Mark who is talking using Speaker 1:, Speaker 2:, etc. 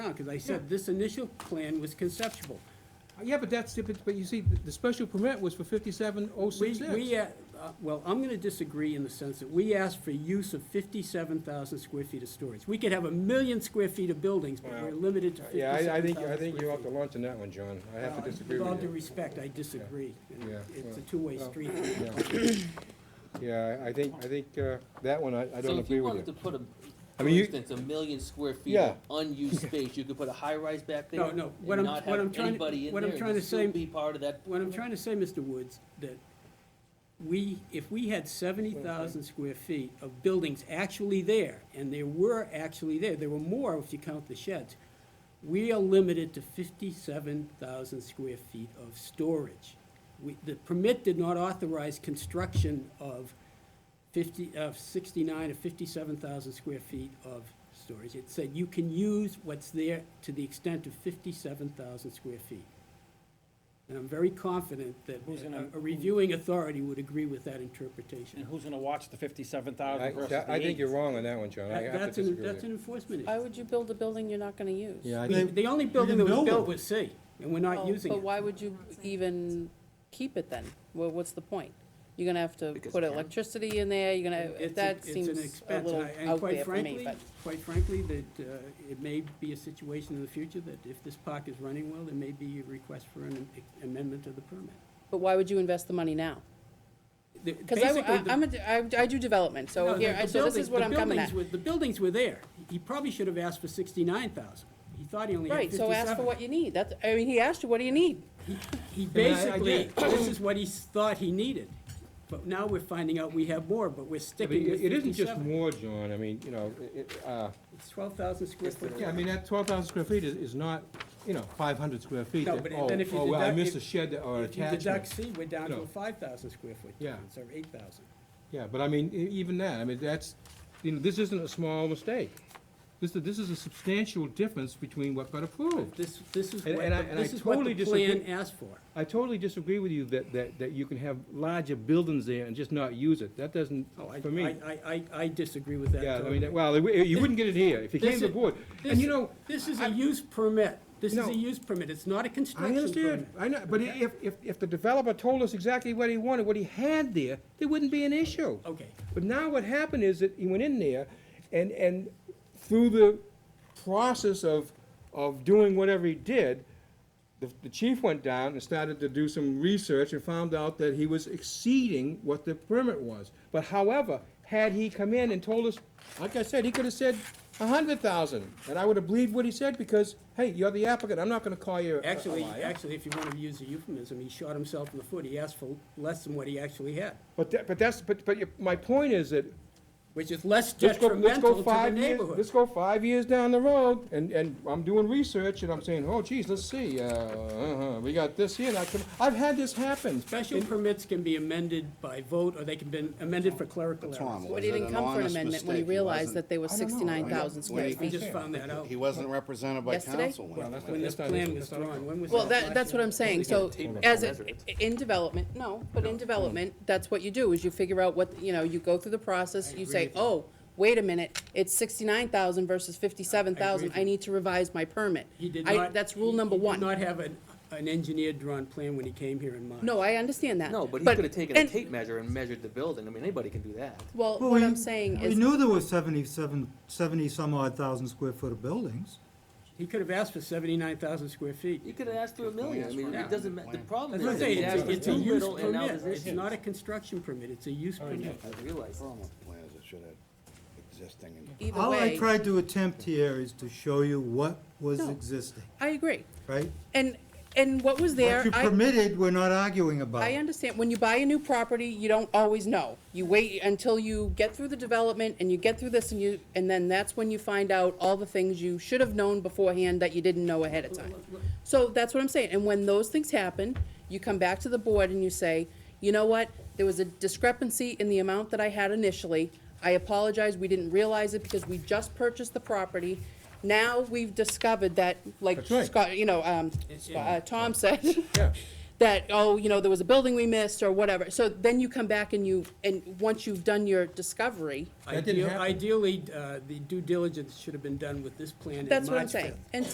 Speaker 1: down, because I said this initial plan was conceptual.
Speaker 2: Yeah, but that's, but but you see, the the special permit was for fifty-seven oh
Speaker 1: We,
Speaker 2: six
Speaker 1: we,
Speaker 2: X.
Speaker 1: uh, uh, well, I'm gonna disagree in the sense that we asked for use of fifty-seven thousand square feet of storage. We could have a million square feet of buildings, but we're limited to
Speaker 3: Uh, Yeah,
Speaker 1: fifty-seven
Speaker 3: I,
Speaker 1: thousand
Speaker 3: I think,
Speaker 1: square feet.
Speaker 3: I think you're off the launch on that one, John. I have
Speaker 1: Uh,
Speaker 3: to disagree
Speaker 1: With all
Speaker 3: with
Speaker 1: due
Speaker 3: you.
Speaker 1: respect, I disagree. and
Speaker 3: Yeah,
Speaker 1: It's a
Speaker 3: well,
Speaker 1: two-way
Speaker 3: well,
Speaker 1: street.
Speaker 3: Yeah. Yeah, I I think, I think, uh, that one, I, I don't agree with
Speaker 4: So if you wanted to
Speaker 3: you.
Speaker 4: put a,
Speaker 3: I
Speaker 4: for
Speaker 3: mean, you-
Speaker 4: instance, a million square feet
Speaker 3: Yeah.
Speaker 4: of unused space, you could put a high-rise back there
Speaker 1: No,
Speaker 4: and
Speaker 1: no, what I'm-
Speaker 4: not
Speaker 1: what I'm
Speaker 4: have
Speaker 1: trying-
Speaker 4: anybody in
Speaker 1: what
Speaker 4: there
Speaker 1: I'm
Speaker 4: and
Speaker 1: trying to
Speaker 4: it'd still
Speaker 1: say-
Speaker 4: be part of that.
Speaker 1: What I'm trying to say, Mr. Woods, that we, if we had seventy thousand square feet of buildings actually there, and there were actually there, there were more if you count the sheds, we are limited to fifty-seven thousand square feet of storage. We, the permit did not authorize construction of fifty, of sixty-nine or fifty-seven thousand square feet of storage. It said you can use what's there to the extent of fifty-seven thousand square feet. And I'm very confident that
Speaker 5: Who's gonna-
Speaker 1: a- a reviewing authority would agree with that interpretation.
Speaker 5: And who's gonna watch the fifty-seven
Speaker 3: I,
Speaker 5: thousand versus
Speaker 3: I
Speaker 5: the
Speaker 3: think
Speaker 5: eight?
Speaker 3: you're wrong on that one, John. I
Speaker 1: That-
Speaker 3: have
Speaker 1: That's
Speaker 3: to
Speaker 1: an,
Speaker 3: disagree
Speaker 1: that's
Speaker 3: with
Speaker 1: an
Speaker 3: you.
Speaker 1: enforcement
Speaker 6: Why
Speaker 1: issue.
Speaker 6: would you build a building you're not gonna use?
Speaker 3: Yeah, I
Speaker 1: The-
Speaker 3: think,
Speaker 1: The only building that
Speaker 7: can
Speaker 1: was
Speaker 7: build
Speaker 1: built
Speaker 7: them.
Speaker 1: was C, and we're not
Speaker 6: Oh,
Speaker 1: using
Speaker 6: But
Speaker 1: it.
Speaker 6: why would you even keep it then? Well, what's the point? You're gonna have to
Speaker 4: Because
Speaker 6: put
Speaker 4: you can.
Speaker 6: electricity in there, you're
Speaker 1: It's a-
Speaker 6: gonna, that
Speaker 1: it's an
Speaker 6: seems a
Speaker 1: expense,
Speaker 6: little
Speaker 1: and I- and
Speaker 6: out
Speaker 1: quite
Speaker 6: there for me,
Speaker 1: frankly-
Speaker 6: but.
Speaker 1: Quite frankly, that uh, it may be a situation in the future that if this park is running well, there may be a request for an e, amendment of the permit.
Speaker 6: But why would you invest the money now? Because I,
Speaker 1: Basically, the-
Speaker 6: am a, I, I do development,
Speaker 1: No,
Speaker 6: so
Speaker 1: the-
Speaker 6: here,
Speaker 1: the
Speaker 6: so this
Speaker 1: buildings-
Speaker 6: is what
Speaker 1: the
Speaker 6: I'm coming
Speaker 1: buildings
Speaker 6: at.
Speaker 1: were- The buildings were there. He probably should have asked for sixty-nine thousand. He thought he only had
Speaker 6: Right, so
Speaker 1: fifty-seven.
Speaker 6: ask for what you need, that's, I mean, he asked you, what do you need?
Speaker 1: He
Speaker 3: mean, I- I
Speaker 1: basically,
Speaker 3: get
Speaker 1: this is what he thought he needed, but now we're finding out we have more, but we're
Speaker 3: Yeah, but
Speaker 1: sticking with
Speaker 3: it it isn't just
Speaker 1: fifty-seven.
Speaker 3: more, John. I mean, you know, it- it, uh,
Speaker 1: It's twelve thousand square
Speaker 3: It's the-
Speaker 1: foot.
Speaker 3: yeah,
Speaker 7: I mean, that twelve thousand square feet is, is not, you know, five hundred square feet.
Speaker 1: No,
Speaker 7: that,
Speaker 1: but
Speaker 7: oh,
Speaker 1: then if you
Speaker 3: oh, well, I
Speaker 1: deduct-
Speaker 3: missed a
Speaker 1: if-
Speaker 3: shed or
Speaker 1: If you deduct C,
Speaker 3: attachment.
Speaker 1: we're down to
Speaker 3: No.
Speaker 1: a five thousand square foot
Speaker 3: Yeah.
Speaker 1: difference, or eight thousand.
Speaker 3: Yeah, but I mean, e- even that, I mean, that's, you know, this isn't a small mistake. This, this is a substantial difference between what got approved.
Speaker 1: This, this is what,
Speaker 3: And- and I-
Speaker 1: the-
Speaker 3: and I
Speaker 1: this is what the
Speaker 3: totally disagree-
Speaker 1: plan asked for.
Speaker 3: I totally disagree with you that, that, that you can have larger buildings there and just not use it. That doesn't, for me.
Speaker 1: Oh, I, I- I, I disagree with that
Speaker 3: Yeah, I
Speaker 1: totally.
Speaker 3: mean, well, it- you wouldn't get it here if you came
Speaker 1: This
Speaker 3: to
Speaker 1: is-
Speaker 3: the board.
Speaker 1: this-
Speaker 3: And you know,
Speaker 1: This is a use permit. This is
Speaker 3: No.
Speaker 1: a use permit. It's not a
Speaker 3: I
Speaker 1: construction permit.
Speaker 3: understand, I know, but i- if, if, if the developer told us exactly what he wanted, what he had there, there wouldn't be an issue.
Speaker 1: Okay,
Speaker 3: But now what happened is that he went in there and, and through the process of, of doing whatever he did, the, the chief went down and started to do some research and found out that he was exceeding what the permit was. But however, had he come in and told us, like I said, he could have said a hundred thousand, and I would have believed what he said because, hey, you're the applicant, I'm not gonna call you a- a
Speaker 1: actually,
Speaker 3: liar.
Speaker 1: actually, if you want to use a euphemism, he shot himself in the foot. He asked for less than what he actually had,
Speaker 3: But that, but that's, but, but your- my point is that
Speaker 1: which is less
Speaker 3: Let's go, let's
Speaker 1: detrimental
Speaker 3: go
Speaker 1: to the
Speaker 3: five years, let's
Speaker 1: neighborhood.
Speaker 3: go five years down the road, and, and I'm doing research, and I'm saying, oh geez, let's see, uh, uh-huh, we got this here, and I can, I've had this happen.
Speaker 1: Special permits can be amended by vote, or they can be amended for clerical errors.
Speaker 8: Tom,
Speaker 6: What
Speaker 8: was
Speaker 6: did
Speaker 8: it
Speaker 6: not
Speaker 8: an
Speaker 6: come for an
Speaker 8: honest
Speaker 6: amendment when he
Speaker 8: mistake?
Speaker 6: realized that
Speaker 8: wasn't-
Speaker 6: they were
Speaker 3: don't know.
Speaker 6: sixty-nine thousand
Speaker 8: When
Speaker 6: square
Speaker 8: he-
Speaker 1: I
Speaker 6: feet?
Speaker 1: just found that out
Speaker 8: He wasn't represented by
Speaker 6: Yesterday?
Speaker 8: council when he
Speaker 1: when this
Speaker 3: that's not
Speaker 1: plan
Speaker 3: even-
Speaker 1: was drawn. When was that?
Speaker 6: Well, that, that's what I'm saying, so
Speaker 4: Hold on.
Speaker 6: as, a-
Speaker 4: Residents.
Speaker 6: in development, no, but in development, that's what you do, is you figure out what, you know, you go through the process, you say, oh, wait a minute, it's sixty-nine thousand versus fifty-seven thousand,
Speaker 1: with
Speaker 6: I need to revise my permit.
Speaker 1: He did
Speaker 6: I-
Speaker 1: not.
Speaker 6: That's rule
Speaker 1: he-
Speaker 6: number
Speaker 1: He did
Speaker 6: one.
Speaker 1: not have an, an engineered drawn plan when he came here in mind.
Speaker 6: No, I understand that.
Speaker 4: No, but he could have taken a
Speaker 6: and-
Speaker 4: tape measure and measured the building, I mean, anybody can do that.
Speaker 6: Well,
Speaker 7: Well,
Speaker 6: what
Speaker 7: we-
Speaker 6: I'm saying
Speaker 7: We
Speaker 6: is,
Speaker 7: knew there were 77, 70 some odd thousand square foot of buildings.
Speaker 1: He could have asked for seventy-nine thousand square feet.
Speaker 4: You could have asked for a million, I mean,
Speaker 1: Yeah.
Speaker 4: it doesn't, ma- the problem
Speaker 1: That's what I'm
Speaker 4: is, that
Speaker 1: saying,
Speaker 4: he
Speaker 1: it's,
Speaker 4: asked
Speaker 1: a-
Speaker 4: for
Speaker 1: it's a
Speaker 4: too
Speaker 1: use
Speaker 4: little Oh, and now
Speaker 1: permit,
Speaker 4: there's
Speaker 1: it's
Speaker 4: issues.
Speaker 1: not a construction permit, it's a use permit.
Speaker 4: I realize that.
Speaker 8: Performance plans that should have existing and
Speaker 6: either
Speaker 7: All I
Speaker 6: way,
Speaker 7: tried to attempt here is to show you what was
Speaker 6: No.
Speaker 7: existing,
Speaker 6: I agree.
Speaker 7: right?
Speaker 6: And, and what was there,
Speaker 7: What you
Speaker 6: I,
Speaker 7: permitted, we're not arguing about.
Speaker 6: I understand, when you buy a new property, you don't always know. You wait until you get through the development and you get through this and you, and then that's when you find out all the things you should have known beforehand that you didn't know ahead of time. So that's what I'm saying, and when those things happen, you come back to the board and you say, you know what? There was a discrepancy in the amount that I had initially. I apologize, we didn't realize it because we just purchased the property. Now we've discovered that, like
Speaker 3: That's right.
Speaker 6: Scott, you know, um, uh, Tom said,
Speaker 3: Yeah.
Speaker 6: that, oh, you know, there was a building we missed or whatever. So then you come back and you, and once you've done your discovery,
Speaker 3: That didn't
Speaker 1: Ideal-
Speaker 3: happen.
Speaker 1: Ideally, uh, the due diligence should have been done with this plan in March
Speaker 6: that's what I'm saying.
Speaker 1: 5th.
Speaker 6: And